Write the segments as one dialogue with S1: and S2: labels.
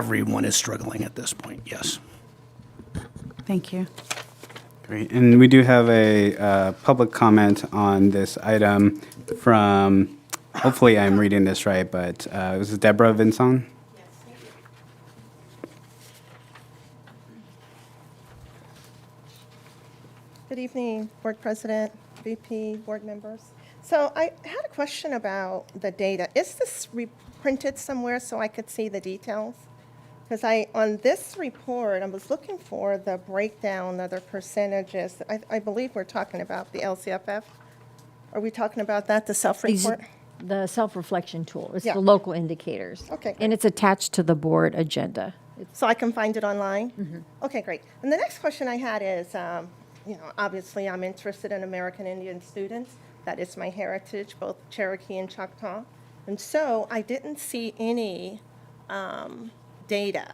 S1: everyone is struggling at this point, yes.
S2: Thank you.
S3: Great, and we do have a uh, public comment on this item from, hopefully I'm reading this right, but uh, this is Deborah Vinson.
S4: Good evening, Board President, VP, board members. So I had a question about the data. Is this reprinted somewhere so I could see the details? Because I, on this report, I was looking for the breakdown of the percentages. I, I believe we're talking about the LCFF. Are we talking about that, the
S5: Ex-
S4: self-report?
S5: The self-reflection tool, it's
S4: Yeah.
S5: the local indicators.
S4: Okay, great.
S5: And it's attached to the board agenda. It's-
S4: So I can find it online? Okay, great. And the next question I had is, um, you know, obviously, I'm interested in American Indian students. That is my heritage, both Cherokee and Choctaw. And so I didn't see any um, data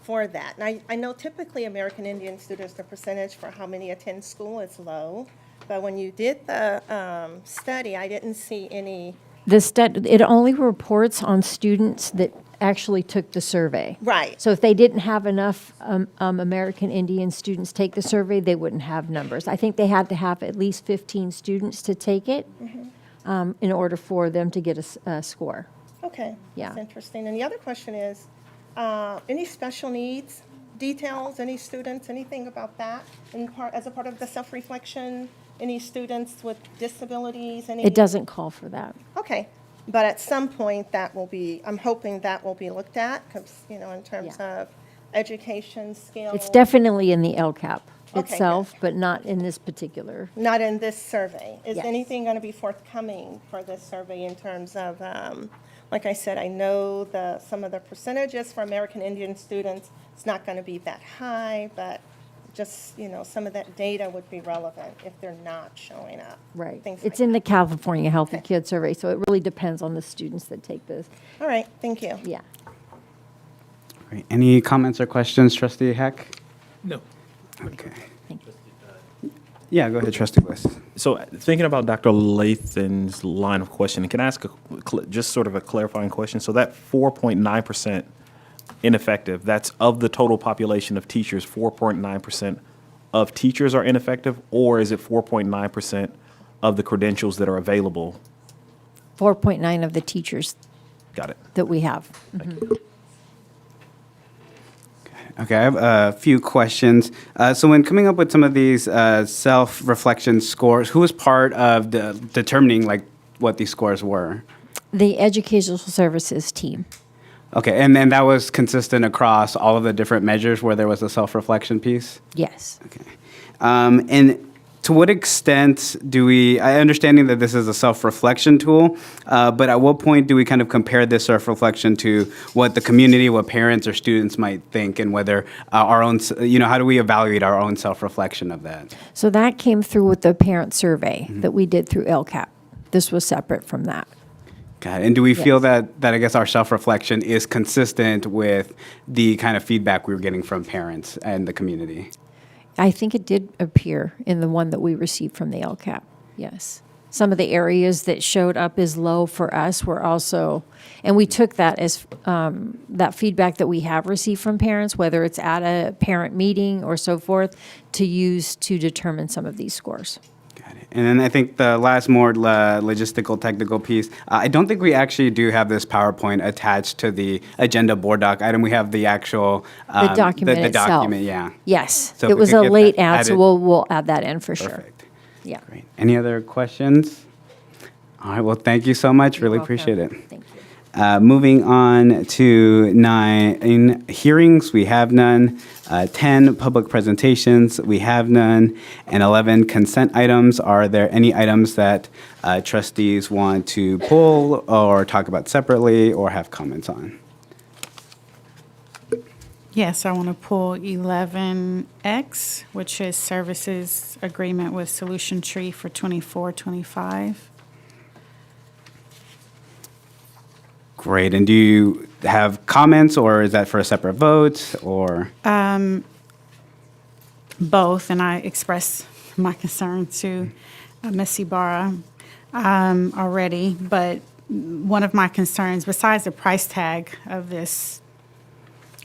S4: for that. And I, I know typically American Indian students, the percentage for how many attend school is low. But when you did the um, study, I didn't see any,
S5: The stud, it only reports on students that actually took the survey.
S4: Right.
S5: So if they didn't have enough um, um, American Indian students take the survey, they wouldn't have numbers. I think they had to have at least 15 students to take it
S4: Mm-hmm.
S5: um, in order for them to get a s- a score.
S4: Okay. That's
S5: Yeah.
S4: interesting. And the other question is, uh, any special needs details, any students, anything about that? In part, as a part of the self-reflection, any students with disabilities, any?
S5: It doesn't call for that.
S4: Okay. But at some point, that will be, I'm hoping that will be looked at, 'cause, you know, in terms
S5: Yeah.
S4: of education, skills.
S5: It's definitely in the LCAP
S4: good.
S5: itself, but not in this particular.
S4: Not in this survey. Is
S5: Yes.
S4: anything going to be forthcoming for this survey in terms of, um, like I said, I know the, some of the percentages for American Indian students, it's not going to be that high, but just, you know, some of that data would be relevant if they're not showing up.
S5: Right.
S4: Things like
S5: It's in the
S4: that.
S5: California Healthy
S4: Okay.
S5: Kids Survey, so it really depends on the students that take this.
S4: All right, thank you.
S5: Yeah.
S3: Great. Any comments or questions, trustee Heck?
S6: No.
S3: Okay.
S5: Thank you.
S3: Yeah, go ahead, trustee Bliss.
S7: So thinking about Dr. Lathan's line of questioning, can I ask a, cl- just sort of a clarifying question? So that 4.9% ineffective, that's of the total population of teachers, 4.9% of teachers are ineffective, or is it 4.9% of the credentials that are available?
S5: 4.9 of the teachers
S7: Got it.
S5: that we have.
S3: Okay, I have a few questions. Uh, So when coming up with some of these uh, self-reflection scores, who was part of the- determining like what these scores were?
S5: The educational services team.
S3: Okay, and then that was consistent across all of the different measures where there was a self-reflection piece?
S5: Yes.
S3: Okay. Um, and to what extent do we, I understanding that this is a self-reflection tool, uh, but at what point do we kind of compare this self-reflection to what the community, what parents or students might think and whether uh, our own, s- you know, how do we evaluate our own self-reflection of that?
S5: So that came through with the parent survey
S7: Mm-hmm.
S5: that we did through LCAP. This was separate from that.
S3: God, and do we feel
S5: Yes.
S3: that, that I guess our self-reflection is consistent with the kind of feedback we were getting from parents and the community?
S5: I think it did appear in the one that we received from the LCAP, yes. Some of the areas that showed up as low for us were also, and we took that as, um, that feedback that we have received from parents, whether it's at a parent meeting or so forth, to use to determine some of these scores.
S3: Got it. And then I think the last more lo- logistical, technical piece, uh, I don't think we actually do have this PowerPoint attached to the agenda board doc item. We have the actual. um,
S5: The document
S3: The
S5: itself.
S3: document, yeah.
S5: Yes,
S3: So if
S5: it
S3: we
S5: was
S3: could
S5: a
S3: get that
S5: late add, so
S3: added.
S5: we'll, we'll add that in for sure.
S3: Perfect.
S5: Yeah.
S3: Great. Any other questions? All right, well, thank you so much.
S5: You're
S3: Really
S5: welcome.
S3: appreciate it.
S5: Thank you.
S3: Uh, Moving on to nine, hearings, we have none. Uh, 10, public presentations, we have none. And 11, consent items. Are there any items that uh, trustees want to pull or talk about separately or have comments on?
S2: Yes, I want to pull 11X, which is services agreement with Solution Tree for 24, 25.
S3: Great, and do you have comments or is that for a separate vote or?
S2: both, and I expressed my concern to uh, Ms. Ibarra um, already, but one of my concerns, besides the price tag of this